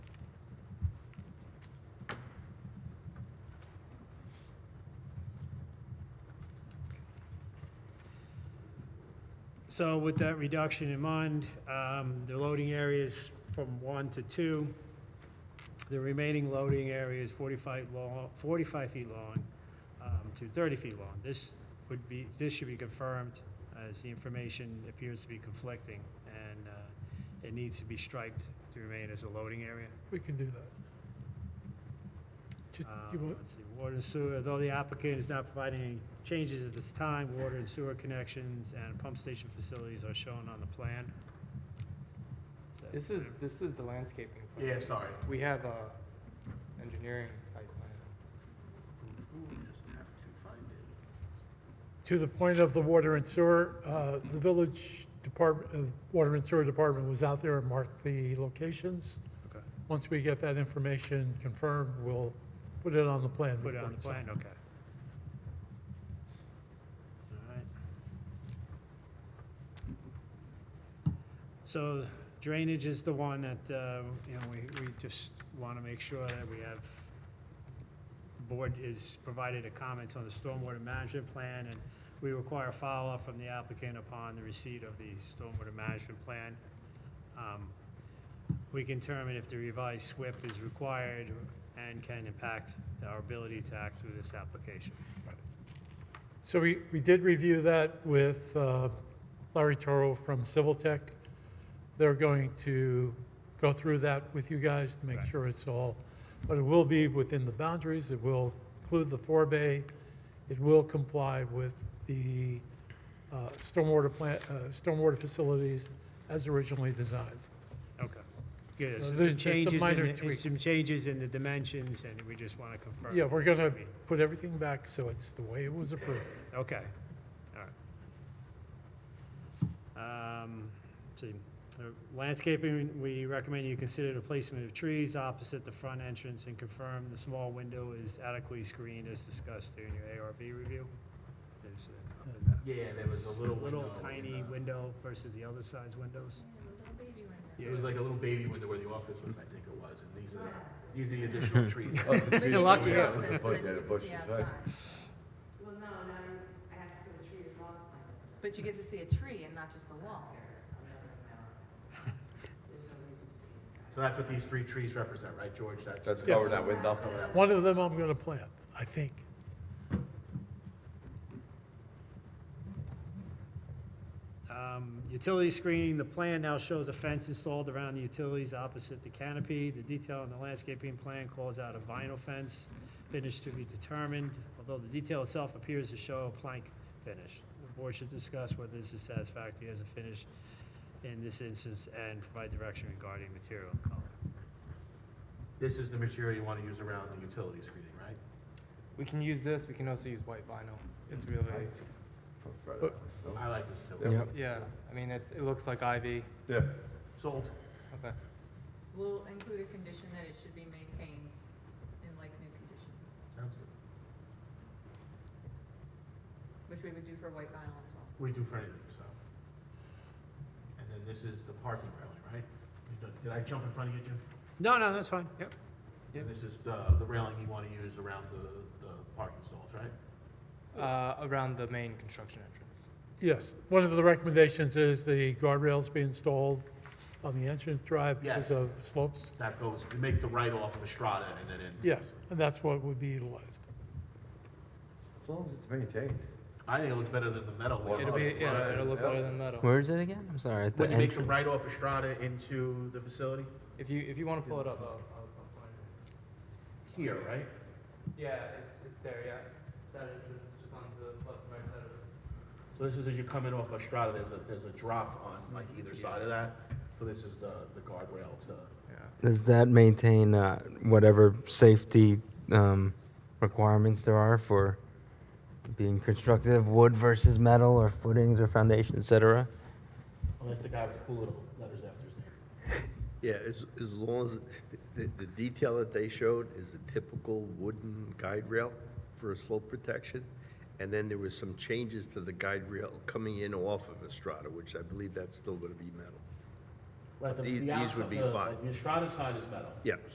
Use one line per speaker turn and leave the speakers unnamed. So with that reduction in mind, um, the loading areas from one to two, the remaining loading area is 45 long, 45 feet long um, to 30 feet long. This would be, this should be confirmed as the information appears to be conflicting, and uh, it needs to be striped to remain as a loading area.
We can do that. Just, do you
Um,
want,
let's see, Water and sewer, though the applicant is not providing any changes at this time, water and sewer connections and pump station facilities are shown on the plan. Is that
This is, this is the landscaping. plan.
Yeah, sorry.
We have a engineering site plan.
to the point of the water and sewer, uh, the village department, uh, water and sewer department was out there and marked the locations.
Okay.
Once we get that information confirmed, we'll put it on the plan.
Put it
before
on the
it's signed.
plan, okay. All right. So drainage is the one that, uh, you know, we, we just want to make sure that we have, the board is provided a comments on the stormwater management plan, and we require follow-up from the applicant upon the receipt of the stormwater management plan. Um, We can determine if the revised SWIP is required and can impact our ability to act through this application.
So we, we did review that with uh, Larry Toro from Civil Tech. They're going to go through that with you guys to make
Right.
sure it's all, but it will be within the boundaries, it will include the four bay, it will comply with the uh, stormwater plant, uh, stormwater facilities as originally designed.
Okay. Good,
So
so
there's-
some
there's some
changes, in
minor
the- and
tweaks.
some changes in the dimensions, and we just want to confirm.
Yeah, we're gonna
Okay,
put everything back so it's the way it was approved.
Okay, all right. Um, see, uh, landscaping, we recommend you consider the placement of trees opposite the front entrance and confirm the small window is adequately screened as discussed during your ARB review. There's a-
Yeah, there was a little window.
Little tiny
in the-
window versus the other side's windows.
It was like a little baby window where the office was, I think it was, and these are, these are Oh, the additional trees.
You're lucky.
Well, no, now I have to put a tree to block my,
But you get to see a tree and not just a wall.
I'm not in my office. There's no reason to be.
So that's what these three trees represent, right, George? That's.
Let's
Yes.
cover that window.
One of them I'm gonna plant, I think.
Um, Utility screening, the plan now shows a fence installed around the utilities opposite the canopy. The detail in the landscaping plan calls out a vinyl fence, finish to be determined, although the detail itself appears to show a plank finish. The board should discuss whether this is satisfactory as a finish in this instance and provide direction regarding material and color.
This is the material you want to use around the utility screening, right?
We can use this, we can also use white vinyl. It's really,
I like this too.
Yeah.
yeah, I mean, it's, it looks like ivy.
Yeah.
Sold.
Okay.
We'll include a condition that it should be maintained in like new condition,
Sounds good.
which we would do for white vinyl as well.
We do for anything, so. And then this is the parking railing, right? You done- Did I jump in front of you, Jim?
No, no, that's fine, yep.
And this is the, the railing you want to use around the, the parking stalls, right?
Uh, around the main construction entrance.
Yes, one of the recommendations is the guardrails be installed on the entrance drive because
Yes.
of slopes.
That goes, you make the right off of Estrada and then in.
Yes, and that's what would be utilized.
As long as it's maintained.
I think it looks better than the metal one.
It'll be, yeah, it'll look better than metal.
Where is it again? I'm sorry. at the
When you make
entr-
the right off Estrada into the facility,
If you, if you wanna pull it up, I'll, I'll I'll find it.
here, right?
Yeah, it's, it's there, yeah. That entrance, just on the left, right side of it.
So this is as you come in off Estrada, there's a, there's a drop on like either side of that. So this is the, the guardrail to,
Does that maintain uh, whatever safety um, requirements there are for being constructed of wood versus metal or footings or foundation, et cetera?
unless the guy with the cool little letters after his name.
Yeah, as, as long as, the, the detail that they showed is a typical wooden guide rail for a slope protection. And then there was some changes to the guide rail coming in off of Estrada, which I believe that's still gonna be metal.
Right, the-
These-
the
these would
outside-
be
the-
fine.
The Estrada side is metal.
Yeah.